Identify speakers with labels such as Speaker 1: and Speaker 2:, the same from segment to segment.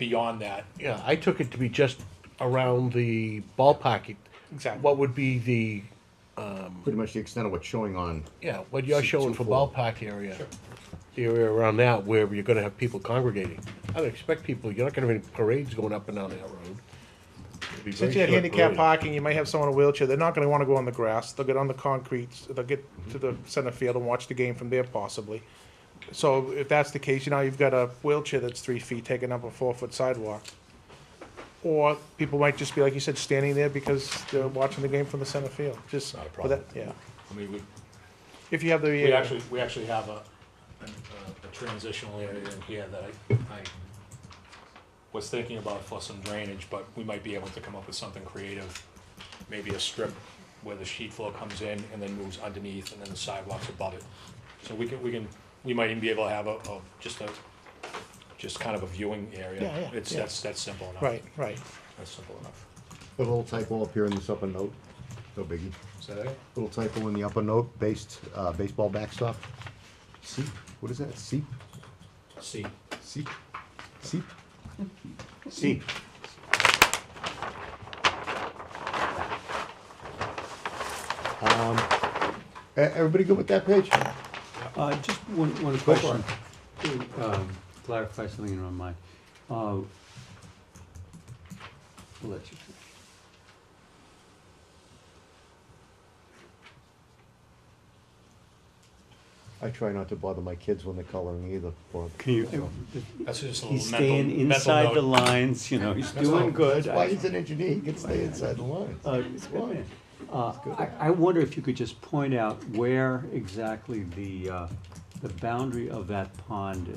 Speaker 1: beyond that.
Speaker 2: Yeah, I took it to be just around the ballpark.
Speaker 1: Exactly.
Speaker 2: What would be the,
Speaker 3: Pretty much the extent of what's showing on.
Speaker 2: yeah, what you're
Speaker 3: Two-
Speaker 2: showing
Speaker 3: two
Speaker 2: for
Speaker 3: full.
Speaker 2: ballpark area? The area around that where you're gonna have people congregating. I would expect people, you're not gonna have any parades going up and down that road. It'd be
Speaker 1: Since
Speaker 2: very
Speaker 1: you had
Speaker 2: short
Speaker 1: handicap
Speaker 2: parade.
Speaker 1: parking, you might have someone in a wheelchair. They're not going to want to go on the grass. They'll get on the concrete. They'll get to the center field and watch the game from there possibly. So if that's the case, you know, you've got a wheelchair that's three feet taking up a four-foot sidewalk. Or people might just be, like you said, standing there because they're watching the game from the center field, just.
Speaker 4: Not a
Speaker 1: for that- Yeah.
Speaker 4: I mean, we,
Speaker 1: If you have the.
Speaker 4: we
Speaker 1: uh,
Speaker 4: actually, we actually have a, an, uh, a transitional area in here that I, I was thinking about for some drainage, but we might be able to come up with something creative. Maybe a strip where the sheet flow comes in and then moves underneath and then the sidewalks above it. So we can, we can, we might even be able to have a, a, just a, just kind of a viewing area.
Speaker 1: Yeah, yeah,
Speaker 4: It's,
Speaker 1: yeah.
Speaker 4: that's, that's simple enough.
Speaker 1: Right, right.
Speaker 4: That's simple enough.
Speaker 3: Put a little typo up here in this upper note, no biggie.
Speaker 4: Is that it?
Speaker 3: Little typo in the upper note, based, uh, baseball backstop. Seep, what is that? Seep,
Speaker 4: See,
Speaker 3: seep, seep? Seep. Um, e- everybody good with that page?
Speaker 5: Uh, just one, one
Speaker 3: for
Speaker 5: question. to, um, Clarify something in my mind. Uh, I'll let you finish.
Speaker 3: I try not to bother my kids when they're coloring either, Bob.
Speaker 5: Can you,
Speaker 4: that's just a
Speaker 5: he's
Speaker 4: little mental,
Speaker 5: staying
Speaker 4: mental
Speaker 5: inside the
Speaker 4: note.
Speaker 5: lines, you know, he's doing good.
Speaker 3: That's why he's an engineer, he can stay inside the lines.
Speaker 5: Uh,
Speaker 3: It's fine.
Speaker 5: Uh, I, I wonder if you could just point out where exactly the, uh, the boundary of that pond is.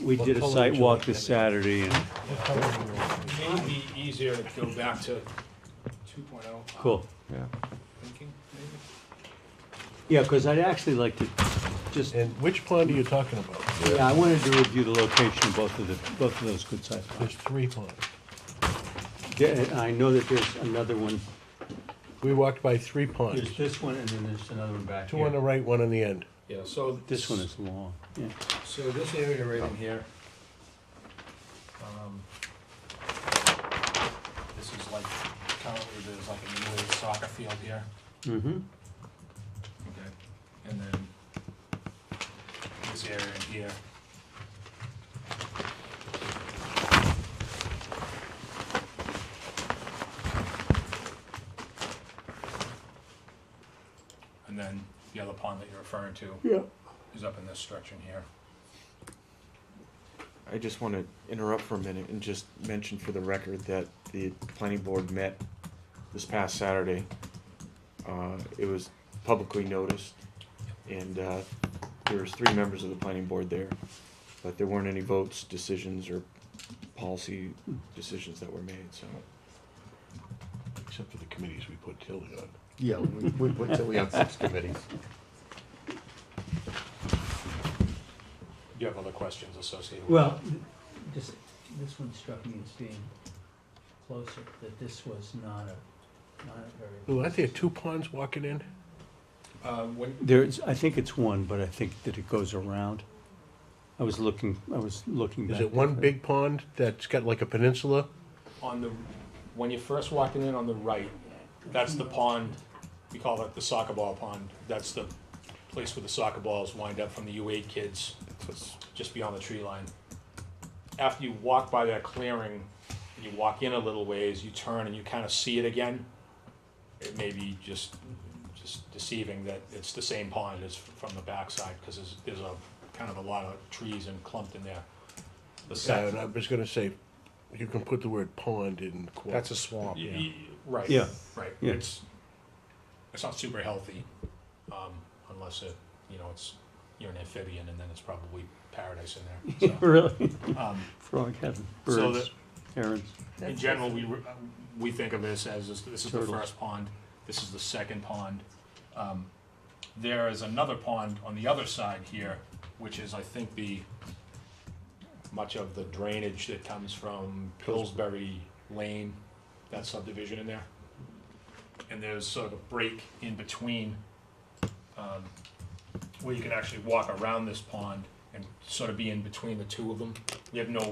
Speaker 5: We
Speaker 2: What
Speaker 5: did a
Speaker 2: color
Speaker 5: site
Speaker 2: would you
Speaker 5: walk
Speaker 2: like
Speaker 5: this
Speaker 2: that
Speaker 5: Saturday and,
Speaker 4: It may be easier to go back to two point oh.
Speaker 5: cool.
Speaker 3: Yeah.
Speaker 4: Thinking, maybe?
Speaker 5: Yeah, cause I'd actually like to just,
Speaker 2: And which pond are you talking about?
Speaker 5: yeah, I wanted to review the location of both of the, both of those good sized ponds.
Speaker 2: There's three ponds.
Speaker 5: There- I know that there's another one,
Speaker 2: We walked by three ponds,
Speaker 5: there's this one and then there's another one back
Speaker 2: two on the
Speaker 5: here.
Speaker 2: right, one on the end.
Speaker 4: Yeah, so.
Speaker 5: This one is long, yeah.
Speaker 4: So this area right in here. um, This is like, currently there's like a new soccer field here.
Speaker 5: Mm-hmm,
Speaker 4: Okay. And then this area in here. And then the other pond that you're referring to
Speaker 5: yeah.
Speaker 4: is up in this stretch in here.
Speaker 6: I just want to interrupt for a minute and just mention for the record that the planning board met this past Saturday. Uh, It was publicly noticed, and uh, there was three members of the planning board there, but there weren't any votes, decisions, or policy decisions that were made, so.
Speaker 2: Except for the committees we put Tilly on.
Speaker 3: Yeah, we, we put Tilly on six committees.
Speaker 4: Do you have other questions associated with
Speaker 7: Well, th- just, this one struck me as being closer, that this was not a, not a very.
Speaker 2: Lou, aren't there two ponds walking in?
Speaker 4: Uh, when,
Speaker 5: There's, I think it's one, but I think that it goes around. I was looking, I was looking back.
Speaker 2: Is it one big pond that's got like a peninsula?
Speaker 4: on the, when you're first walking in on the right, that's the pond, we call that the soccer ball pond. That's the place where the soccer balls wind up from the U eight kids, just beyond the tree line. After you walk by that clearing, you walk in a little ways, you turn and you kind of see it again. It may be just, just deceiving that it's the same pond as from the backside, because there's, there's a, kind of a lot of trees and clumped in there. The
Speaker 2: Uh,
Speaker 4: sec-
Speaker 2: and I was gonna say, you can put the word pond in quotes.
Speaker 1: That's a swamp.
Speaker 4: Y- y- Right.
Speaker 5: Yeah.
Speaker 4: Right.
Speaker 5: Yeah.
Speaker 4: It's it's not super healthy, um, unless it you know it's you're an amphibian and then it's probably paradise in there. So,
Speaker 5: Really?
Speaker 4: um,
Speaker 5: Frog heaven,
Speaker 4: So
Speaker 5: birds, herons.
Speaker 4: in general, we re- we think of this as this, this is the
Speaker 5: Turtles.
Speaker 4: first pond. This is the second pond. Um, there is another pond on the other side here, which is I think the much of the drainage that comes from Pillsbury Lane, that subdivision in there. And there's sort of a break in between, um, where you can actually walk around this pond and sort of be in between the two of them. You have no